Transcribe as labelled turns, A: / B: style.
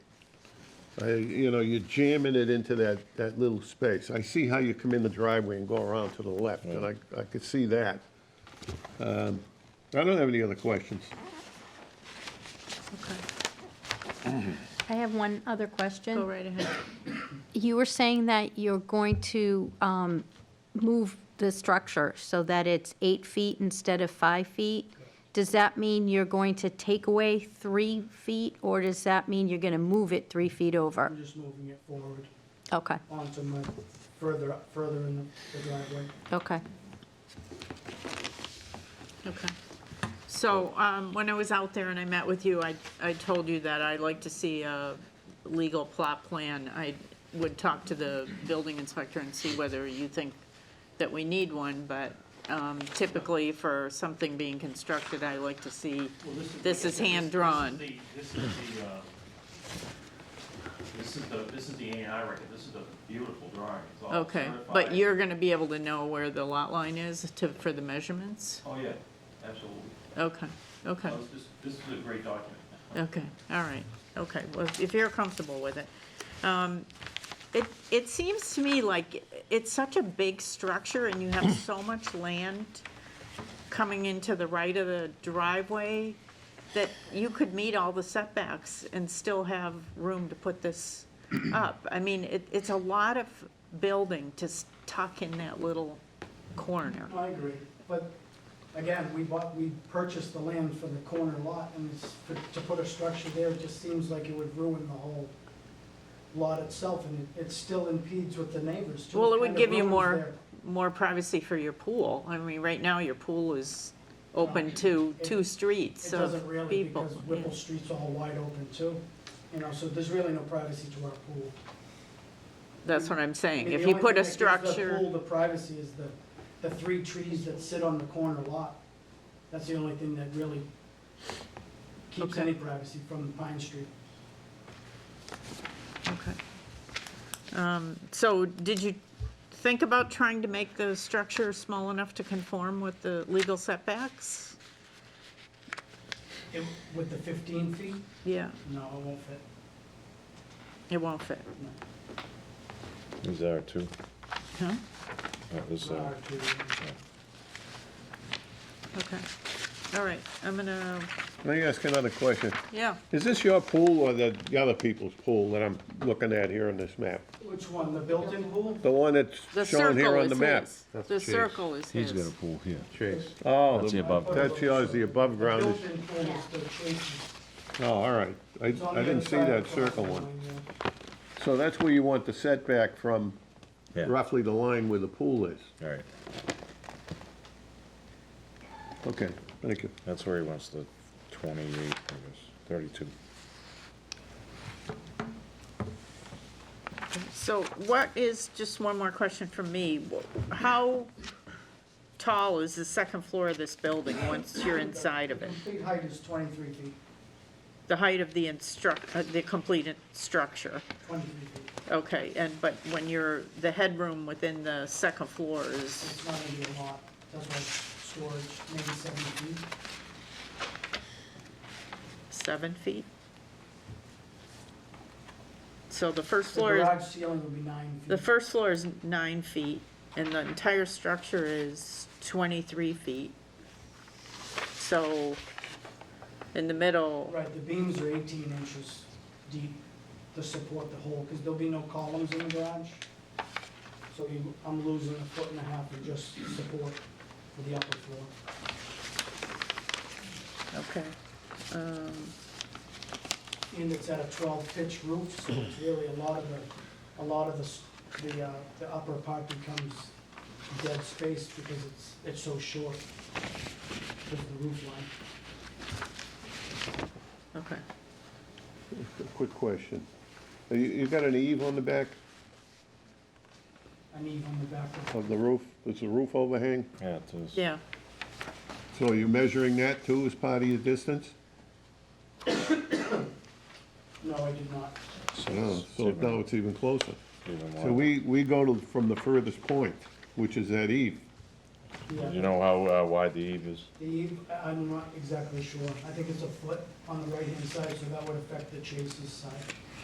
A: I, you know, you're jamming it into that, that little space. I see how you come in the driveway and go around to the left, and I, I could see that. Um, I don't have any other questions.
B: I have one other question.
C: Go right ahead.
B: You were saying that you're going to um, move the structure so that it's eight feet instead of five feet. Does that mean you're going to take away three feet, or does that mean you're going to move it three feet over?
D: I'm just moving it forward
B: Okay,
D: onto my, further, further in the- the driveway.
B: okay.
C: Okay. So, um, when I was out there and I met with you, I, I told you that I'd like to see a legal plot plan. I would talk to the building inspector and see whether you think that we need one, but, um, typically for something being constructed, I like to see, this is hand-drawn.
E: This is the, uh, this is the, this is the A and I record, this is a beautiful drawing, it's all
C: Okay,
E: certified.
C: but you're gonna be able to know where the lot line is to, for the measurements?
E: Oh, yeah, absolutely.
C: Okay, okay.
E: No, this- This, this is a great document.
C: Okay, all right, okay, well, if you're comfortable with it. Um, It, it seems to me like it's such a big structure and you have so much land coming into the right of the driveway that you could meet all the setbacks and still have room to put this up. I mean, it, it's a lot of building to s- tuck in that little corner.
D: I agree, but again, we bought, we purchased the land for the corner lot, and it's- for- to put a structure there, it just seems like it would ruin the whole lot itself, and it it still impedes with the neighbors too.
C: Well, it would
D: kind of
C: give you
D: ruins
C: more,
D: their-
C: more privacy for your pool. I mean, right now, your pool is open to
D: It-
C: two streets
D: It doesn't
C: of
D: really,
C: people.
D: because Whipple Street's all wide open too, you know, so there's really no privacy to our pool.
C: That's what I'm
D: I mean,
C: saying.
D: the
C: If you
D: only
C: put a
D: thing that gives The
C: structure,
D: pool, the privacy is the, the three trees that sit on the corner lot. That's the only thing that really keeps
C: Okay.
D: any privacy from Pine Street.
C: okay. Um, So did you think about trying to make the structure small enough to conform with the legal setbacks?
D: It- With the 15 feet,
C: Yeah,
D: no, it won't fit.
C: it won't fit.
D: No.
F: Is there two?
C: Huh?
F: That was,
D: It's not
F: uh,
D: our two.
C: Okay, all right, I'm gonna,
A: Let me ask another question.
C: yeah,
A: Is this your pool or the, the other people's pool that I'm looking at here on this map?
D: Which one, the built-in pool?
A: The one
C: the
A: that's shown here
C: circle
A: on the
C: is
A: map?
C: his.
G: That's
C: The
G: Chase.
C: circle is his.
F: he's got a pool here.
G: Chase.
A: Oh,
F: That's
A: the-
F: the above ground.
A: That's yours, the above
D: The
A: ground is,
D: built-in pool is the trees.
A: oh, all right. I,
D: It's on
A: I
D: the
A: didn't
D: other
A: see
D: side
A: that
D: of the
A: circle
D: property
A: one.
D: line, yeah.
A: So that's where you want the setback from
F: Yeah.
A: roughly the line where the pool is.
F: All right,
A: Okay, thank you.
F: that's where he wants the twenty-eight, I guess, thirty-two.
C: So what is, just one more question from me, how tall is the second floor of this building once you're inside of
D: The
C: it?
D: Complete height is 23 feet,
C: The height of the instruct, uh, the completed structure,
D: 23 feet.
C: okay, and, but when you're, the headroom within the second floor is,
D: It's not gonna be a lot, that's why storage, maybe 70 feet.
C: seven feet? So the first
D: The
C: floor, is
D: garage ceiling would be nine feet.
C: the first floor is nine feet, and the entire structure is twenty-three feet. So, in the middle,
D: Right, the beams are 18 inches deep to support the whole, because there'll be no columns in the garage. So you, I'm losing a foot and a half of just support for the upper floor.
C: okay. Um,
D: And it's at a 12 pitch roof, so it's really a lot of the, a lot of the, s- the, uh, the upper part becomes dead space because it's, it's so short because of the roof line.
C: Okay,
A: Quick question. You, you got an eave on the back
D: I need on the back of,
A: of the roof? Is the roof overhang?
F: Yeah, it is.
C: yeah,
A: So are you measuring that too as part of your distance?
D: no, I did not.
F: So
A: No,
F: it's
A: so
F: even-
A: now it's even closer.
F: even
A: So
F: wider.
A: we, we go to, from the furthest point, which is that eve.
D: Yeah.
F: You know how uh, wide the eve is?
D: The eve, I- I'm not exactly sure. I think it's a foot on the right-hand side, so that would affect the Chase's side.